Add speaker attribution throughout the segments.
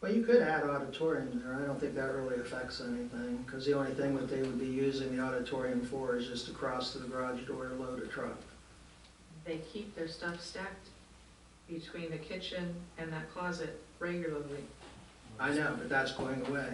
Speaker 1: Well, you could add auditorium there, I don't think that really affects anything, because the only thing that they would be using the auditorium for is just to cross to the garage door to load a truck.
Speaker 2: They keep their stuff stacked between the kitchen and that closet regularly.
Speaker 1: I know, but that's going away.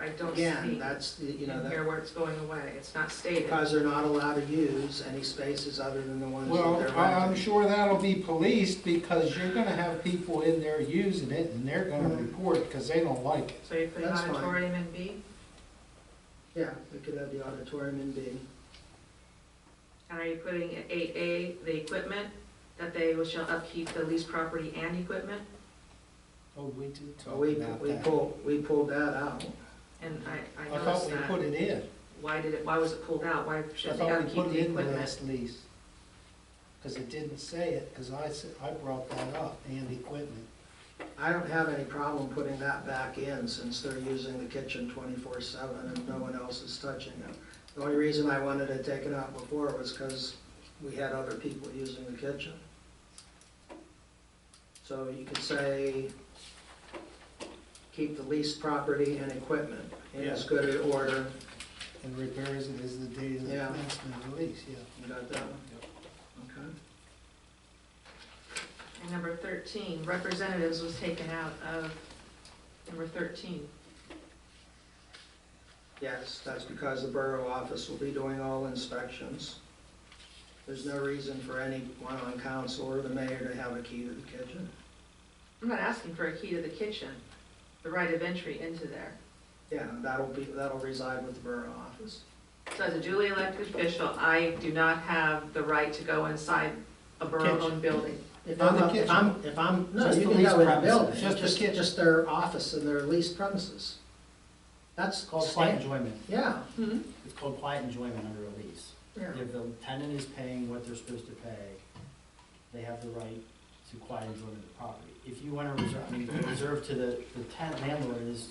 Speaker 2: I don't see
Speaker 1: Again,
Speaker 2: in
Speaker 1: that's, the you know, that-
Speaker 2: here where it's going away. It's not stated.
Speaker 1: because they're not allowed to use any spaces other than the ones that
Speaker 3: Well,
Speaker 1: they're
Speaker 3: I- I'm
Speaker 1: renting.
Speaker 3: sure that'll be policed because you're gonna have people in there using it and they're gonna
Speaker 1: Mhm.
Speaker 3: report because they don't like it.
Speaker 2: So you put
Speaker 1: That's fine.
Speaker 2: auditorium in B,
Speaker 1: Yeah, we could have the auditorium in B.
Speaker 2: and are you putting in eight A, the equipment, that they shall upkeep the leased property and equipment?
Speaker 3: Oh, we did
Speaker 1: So we, we pulled, we pulled that out.
Speaker 2: And I, I
Speaker 3: I thought
Speaker 2: noticed
Speaker 3: we
Speaker 2: that.
Speaker 3: put it in.
Speaker 2: Why did it, why was it pulled out? Why
Speaker 3: I
Speaker 2: should they
Speaker 3: thought we
Speaker 2: upkeep
Speaker 3: put
Speaker 2: the
Speaker 3: it in the
Speaker 2: equipment?
Speaker 3: last lease. Because it didn't say it, because I said, I brought that up, and equipment.
Speaker 1: I don't have any problem putting that back in since they're using the kitchen twenty-four seven and no one else is touching it. The only reason I wanted it taken out before was because we had other people using the kitchen. So you could say, keep the leased property and equipment in as
Speaker 3: Yeah.
Speaker 1: good an order,
Speaker 3: And repairs it as the date of the
Speaker 1: Yeah.
Speaker 3: commencement of the lease, yeah.
Speaker 1: you got that one? Okay.
Speaker 2: And number thirteen, representatives was taken out of number thirteen.
Speaker 1: Yes, that's because the borough office will be doing all inspections. There's no reason for anyone on council or the mayor to have a key to the kitchen.
Speaker 2: I'm not asking for a key to the kitchen, the right of entry into there.
Speaker 1: Yeah, that'll be, that'll reside with the borough office.
Speaker 2: So as a duly elected official, I do not have the right to go inside a borough-owned building.
Speaker 1: If
Speaker 3: Not
Speaker 1: I'm,
Speaker 3: the
Speaker 1: up- if I'm, if I'm, no,
Speaker 3: Just
Speaker 1: you
Speaker 3: the
Speaker 1: can
Speaker 3: leased
Speaker 1: go in the
Speaker 3: premises.
Speaker 1: building,
Speaker 3: Just the
Speaker 1: just,
Speaker 3: kitchen.
Speaker 1: just their office and their leased premises. That's
Speaker 4: It's called quiet
Speaker 1: standard.
Speaker 4: enjoyment.
Speaker 1: Yeah,
Speaker 2: Hmm?
Speaker 4: It's called quiet enjoyment under a lease.
Speaker 1: yeah,
Speaker 4: If the tenant is paying what they're supposed to pay, they have the right to quiet enjoyment of the property. If you want to reserve, I mean, the reserve to the, the tenant landlord is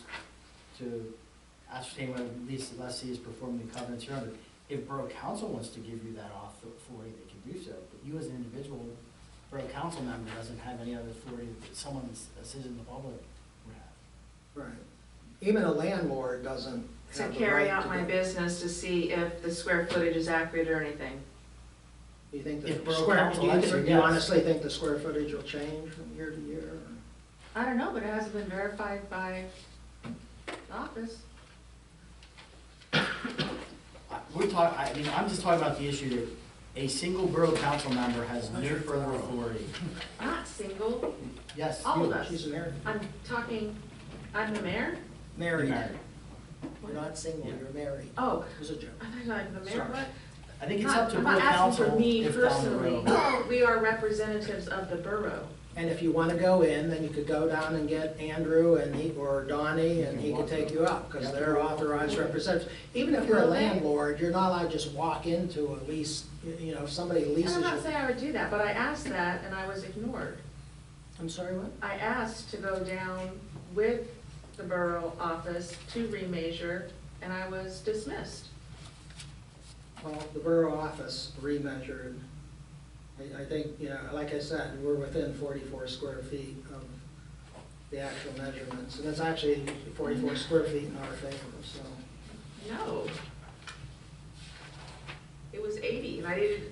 Speaker 4: to ascertain whether the lease lessee is performing the covenants here under. If borough council wants to give you that auth- authority, they can do so, but you as an individual, borough council member doesn't have any other authority that someone that's- that's in the public would have.
Speaker 1: right. Even a landlord doesn't
Speaker 2: To
Speaker 1: have the right
Speaker 2: carry
Speaker 1: to.
Speaker 2: out my
Speaker 1: do-
Speaker 2: business to see if the square footage is accurate or anything.
Speaker 1: You think
Speaker 4: If
Speaker 1: the
Speaker 4: borough
Speaker 1: square,
Speaker 4: council
Speaker 1: do you,
Speaker 4: lets
Speaker 1: do
Speaker 4: you,
Speaker 1: you
Speaker 4: yes.
Speaker 1: honestly think the square footage will change from year to year? or-
Speaker 2: I don't know, but it hasn't been verified by the office.
Speaker 4: I- We're talking, I mean, I'm just talking about the issue that a single borough council member has no further authority.
Speaker 2: Not single,
Speaker 4: Yes.
Speaker 2: all of
Speaker 4: you.
Speaker 2: us.
Speaker 1: She's an heir.
Speaker 2: I'm talking, I'm the mayor?
Speaker 4: Married. Married.
Speaker 1: You're not single,
Speaker 4: Yeah.
Speaker 1: you're married.
Speaker 2: Oh,
Speaker 1: It was a joke.
Speaker 2: I thought I'm the mayor,
Speaker 1: Sorry.
Speaker 2: what?
Speaker 4: I think it's up to
Speaker 2: I'm not
Speaker 4: borough council
Speaker 2: asking for me
Speaker 4: if down the
Speaker 2: personally.
Speaker 4: road.
Speaker 2: No, we are representatives of the borough.
Speaker 1: And if you want to go in, then you could go down and get Andrew and he, or Donnie, and he could take you up, because they're authorized representatives. Even if you're a landlord, you're not allowed to just walk into a lease, you know, if somebody
Speaker 2: And
Speaker 1: leases
Speaker 2: I'm not
Speaker 1: you.
Speaker 2: saying I would do that, but I asked that and I was ignored.
Speaker 1: I'm sorry, what?
Speaker 2: I asked to go down with the borough office to remeasure and I was dismissed.
Speaker 1: Well, the borough office remeasured. I, I think, you know, like I said, we're within forty-four square feet of the actual measurements. And it's actually forty-four square feet in our favor, so.
Speaker 2: No. It was eighty and I didn't,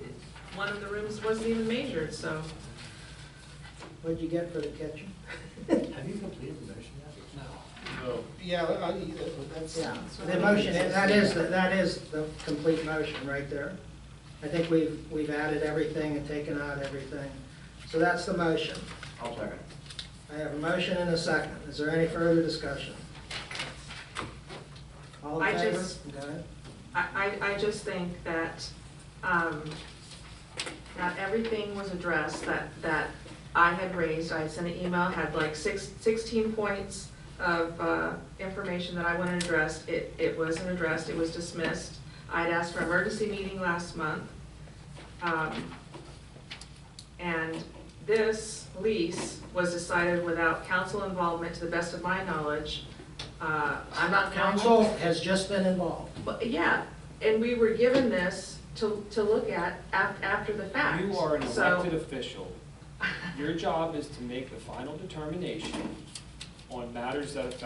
Speaker 2: one of the rooms wasn't even measured, so.
Speaker 1: What'd you get for the kitchen?
Speaker 4: Have you completed the motion yet?
Speaker 3: Yeah, I- I- that's,
Speaker 1: Yeah, the motion, that is, that is the complete motion right there. I think we've, we've added everything and taken out everything. So that's the motion.
Speaker 4: I'll second.
Speaker 1: I have a motion and a second. Is there any further discussion? All in
Speaker 2: I
Speaker 1: favor?
Speaker 2: just-
Speaker 1: Go ahead.
Speaker 2: I, I, I just think that, um, not everything was addressed that, that I had raised. I sent an email, had like six, sixteen points of, uh, information that I wanted addressed. It, it wasn't addressed, it was dismissed. I'd asked for an emergency meeting last month. Um, And this lease was decided without council involvement, to the best of my knowledge. Uh, I'm not council.
Speaker 1: Council has just been involved.
Speaker 2: But, yeah, and we were given this to, to look at af- after the fact.
Speaker 5: You are an
Speaker 2: So-
Speaker 5: elected official. Your job is to make the final determination on matters that affect